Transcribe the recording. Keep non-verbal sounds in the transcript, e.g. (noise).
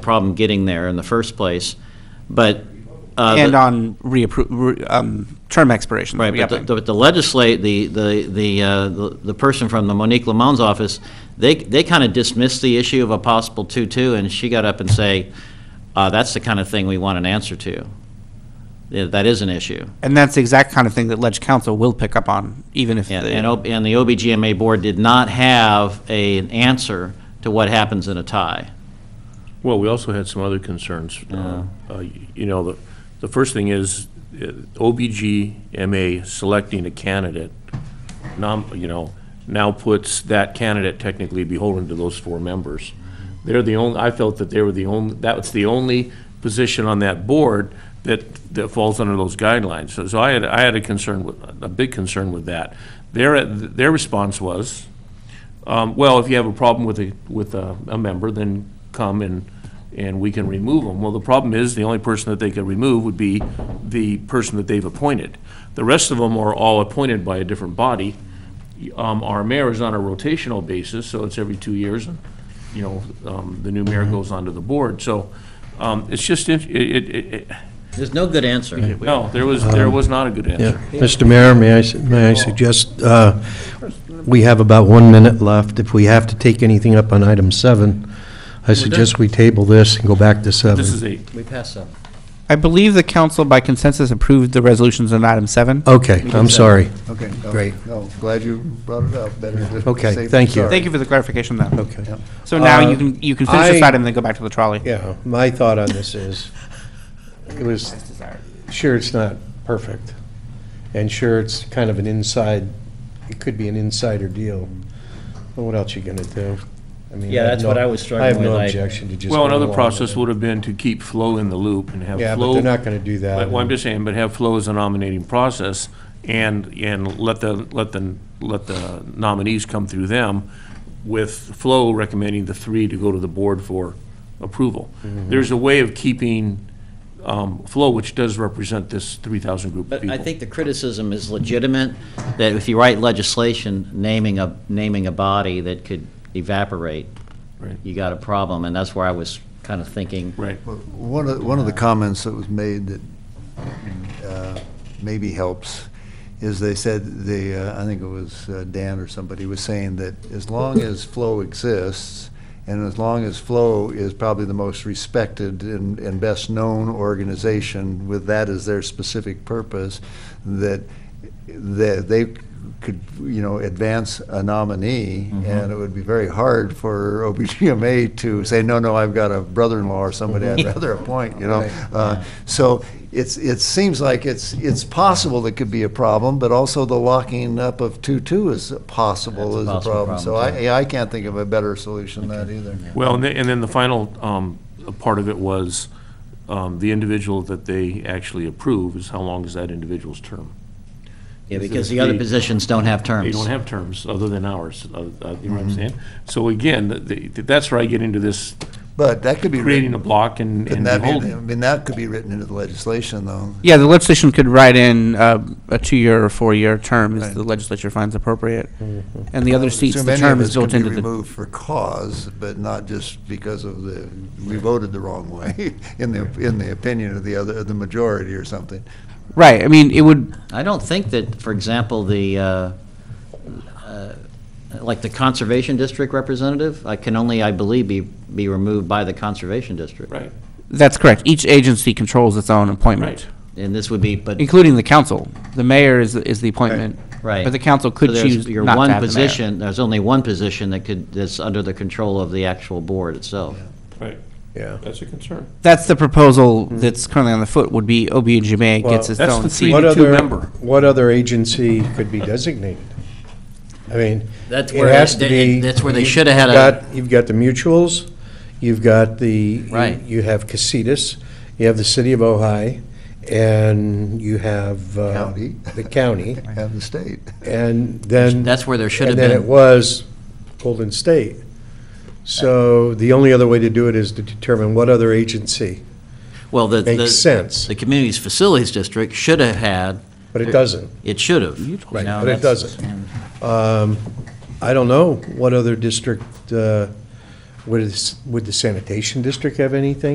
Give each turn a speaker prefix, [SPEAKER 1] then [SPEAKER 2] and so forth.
[SPEAKER 1] problem getting there in the first place, but. uh,
[SPEAKER 2] And
[SPEAKER 1] the-
[SPEAKER 2] on reappro, re- um, term expiration.
[SPEAKER 1] Right, but the-
[SPEAKER 2] reapplying.
[SPEAKER 1] the- but the legislate, the, the, the, uh, the the person from the Monique Lamont's office, they, they kind of dismissed the issue of a possible two-two, and she got up and say, uh, that's the kind of thing we want an answer to. Yeah, That is an issue.
[SPEAKER 2] And that's the exact kind of thing that Ledge Council will pick up on, even if.
[SPEAKER 1] And,
[SPEAKER 2] the-
[SPEAKER 1] and O- and the OBGMA board did not have a- an answer to what happens in a tie.
[SPEAKER 3] Well, we also had some other concerns. Uh, uh, You know, the, the first thing is uh, OBGMA selecting a candidate, nom, you know, now puts that candidate technically beholden to those four members. They're the only, I felt that they were the only, that was the only position on that board that, that falls under those guidelines. So- So I had, I had a concern, with a big concern with that. Their, their response was, um, well, if you have a problem with a, with a, a member, then come and, and we can remove them. Well, the problem is, the only person that they could remove would be the person that they've appointed. The rest of them are all appointed by a different body. Um, our mayor is on a rotational basis, so it's every two years, and, you know, um, the new
[SPEAKER 4] Mm-hmm.
[SPEAKER 3] mayor goes onto the board, so, um, it's just, it, it, it, it-
[SPEAKER 1] There's no good answer.
[SPEAKER 3] no, there was, there was not a good
[SPEAKER 4] Um, Yeah.
[SPEAKER 3] answer.
[SPEAKER 4] Mr. Mayor, may I, may I suggest, uh, we have about one minute left. If we have to take anything up on item seven, I suggest we table this and go back to seven.
[SPEAKER 3] This is eight.
[SPEAKER 1] We passed some.
[SPEAKER 2] I believe the council by consensus approved the resolutions on item seven.
[SPEAKER 4] Okay, I'm sorry.
[SPEAKER 5] Okay. no,
[SPEAKER 4] Great.
[SPEAKER 5] No, glad you brought it up. Better just
[SPEAKER 4] Okay,
[SPEAKER 5] safe than
[SPEAKER 4] thank you.
[SPEAKER 5] sorry.
[SPEAKER 2] Thank you for the clarification, though.
[SPEAKER 4] Okay.
[SPEAKER 2] So now
[SPEAKER 4] Uh,
[SPEAKER 2] you can, you can finish this
[SPEAKER 4] I-
[SPEAKER 2] item and then go back to the trolley.
[SPEAKER 4] Yeah, my thought on this is, it was, sure, it's not perfect, and sure, it's kind of an inside, it could be an insider deal, but what else you gonna do? I mean,
[SPEAKER 1] Yeah,
[SPEAKER 4] I have
[SPEAKER 1] that's
[SPEAKER 4] no-
[SPEAKER 1] what I was struggling
[SPEAKER 4] I have
[SPEAKER 1] with,
[SPEAKER 4] no
[SPEAKER 1] I-
[SPEAKER 4] objection to just.
[SPEAKER 3] Well,
[SPEAKER 4] going
[SPEAKER 3] another
[SPEAKER 4] along
[SPEAKER 3] process
[SPEAKER 4] with it.
[SPEAKER 3] would have been to keep Flo in the loop and have Flo.
[SPEAKER 4] Yeah, but they're not gonna do that.
[SPEAKER 3] But well, I'm just saying, but have flow as a nominating process and, and let the, let the, let the nominees come through them with flow recommending the three to go to the board for approval. There's a way of keeping um, flow, which does represent this 3,000 group of
[SPEAKER 1] But
[SPEAKER 3] people.
[SPEAKER 1] I think the criticism is legitimate, that if you write legislation naming a, naming a body that could evaporate,
[SPEAKER 3] Right.
[SPEAKER 1] you got a problem, and that's where I was kind of thinking.
[SPEAKER 3] Right.
[SPEAKER 5] Well, One of, one of the comments that was made that uh, maybe helps is they said, the, uh, I think it was uh, Dan or somebody was saying that as long as flow exists, and as long as flow is probably the most respected and, and best-known organization with that as their specific purpose, that, that they could, you know, advance a nominee, and it would be very hard for OBGMA to say, no, no, I've got a brother-in-law or somebody I'd rather appoint, you know? Uh, So it's, it seems like it's, it's possible that could be a problem, but also the locking up of two-two is
[SPEAKER 1] That's
[SPEAKER 5] possible as
[SPEAKER 1] a
[SPEAKER 5] a
[SPEAKER 1] possible
[SPEAKER 5] problem. So
[SPEAKER 1] problem,
[SPEAKER 5] I, I can't think of a better solution than that either.
[SPEAKER 3] Well, and then, and then the final um, part of it was um, the individual that they actually approve is how long is that individual's term?
[SPEAKER 1] Yeah, because the other positions don't have terms.
[SPEAKER 3] They don't have terms other than ours, uh, uh, you know
[SPEAKER 5] Mm-hmm.
[SPEAKER 3] what I'm saying? So again, th- th- that's where I get into this
[SPEAKER 5] But that could be.
[SPEAKER 3] creating a block and and
[SPEAKER 5] Couldn't that be, I
[SPEAKER 3] beholden.
[SPEAKER 5] mean, that could be written into the legislation, though.
[SPEAKER 2] Yeah, the legislation could write in uh, a two-year or four-year term as
[SPEAKER 5] Right.
[SPEAKER 2] the legislature finds appropriate. And the other seats,
[SPEAKER 5] Assume
[SPEAKER 2] the
[SPEAKER 5] any
[SPEAKER 2] term
[SPEAKER 5] of
[SPEAKER 2] is
[SPEAKER 5] us can
[SPEAKER 2] built
[SPEAKER 5] be
[SPEAKER 2] into the.
[SPEAKER 5] removed for cause, but not just because of the, we voted the wrong way, (laughs) in the, in the opinion of the other, the majority or something.
[SPEAKER 2] Right, I mean, it would,
[SPEAKER 1] I don't think that, for example, the, uh, uh, like the Conservation District representative, I can only, I believe, be, be removed by the Conservation District.
[SPEAKER 3] Right,
[SPEAKER 2] that's correct. Each agency controls its own appointment.
[SPEAKER 3] right.
[SPEAKER 1] And this would be, but,
[SPEAKER 2] including the council. The mayor is, is the appointment.
[SPEAKER 1] right.
[SPEAKER 2] But the council could
[SPEAKER 1] So there's
[SPEAKER 2] choose
[SPEAKER 1] your
[SPEAKER 2] not
[SPEAKER 1] one
[SPEAKER 2] to have the mayor.
[SPEAKER 1] position- There's only one position that could, that's under the control of the actual board itself.
[SPEAKER 3] Right,
[SPEAKER 4] Yeah.
[SPEAKER 3] that's a concern.
[SPEAKER 2] That's the proposal
[SPEAKER 1] Hmm.
[SPEAKER 2] that's currently on the foot, would be OBGMA gets its
[SPEAKER 3] that's the
[SPEAKER 2] own
[SPEAKER 3] three-
[SPEAKER 2] seat.
[SPEAKER 4] What
[SPEAKER 3] to two
[SPEAKER 4] other-
[SPEAKER 3] member.
[SPEAKER 4] What other agency could be designated? I mean, it
[SPEAKER 1] That's where
[SPEAKER 4] has
[SPEAKER 1] they-
[SPEAKER 4] to be.
[SPEAKER 1] that's where they
[SPEAKER 4] you've
[SPEAKER 1] shoulda had a-
[SPEAKER 4] got- You've got the mutuals, you've got the.
[SPEAKER 1] Right.
[SPEAKER 4] You have Casitas, you have the city of Ojai, and you have. uh,
[SPEAKER 5] County.
[SPEAKER 4] The county,
[SPEAKER 5] Have the state.
[SPEAKER 4] and then.
[SPEAKER 1] That's where there should have
[SPEAKER 4] And then it
[SPEAKER 1] been,
[SPEAKER 4] was Golden State. So the only other way to do it is to determine what other agency
[SPEAKER 1] well, the. the-
[SPEAKER 4] makes sense,
[SPEAKER 1] The Communities Facilities District should have had,
[SPEAKER 4] but it doesn't.
[SPEAKER 1] it should have.
[SPEAKER 4] Right,
[SPEAKER 1] You know,
[SPEAKER 4] but it
[SPEAKER 1] that's-
[SPEAKER 4] doesn't. Um, I don't know what other district uh, Would, would the sanitation district have anything?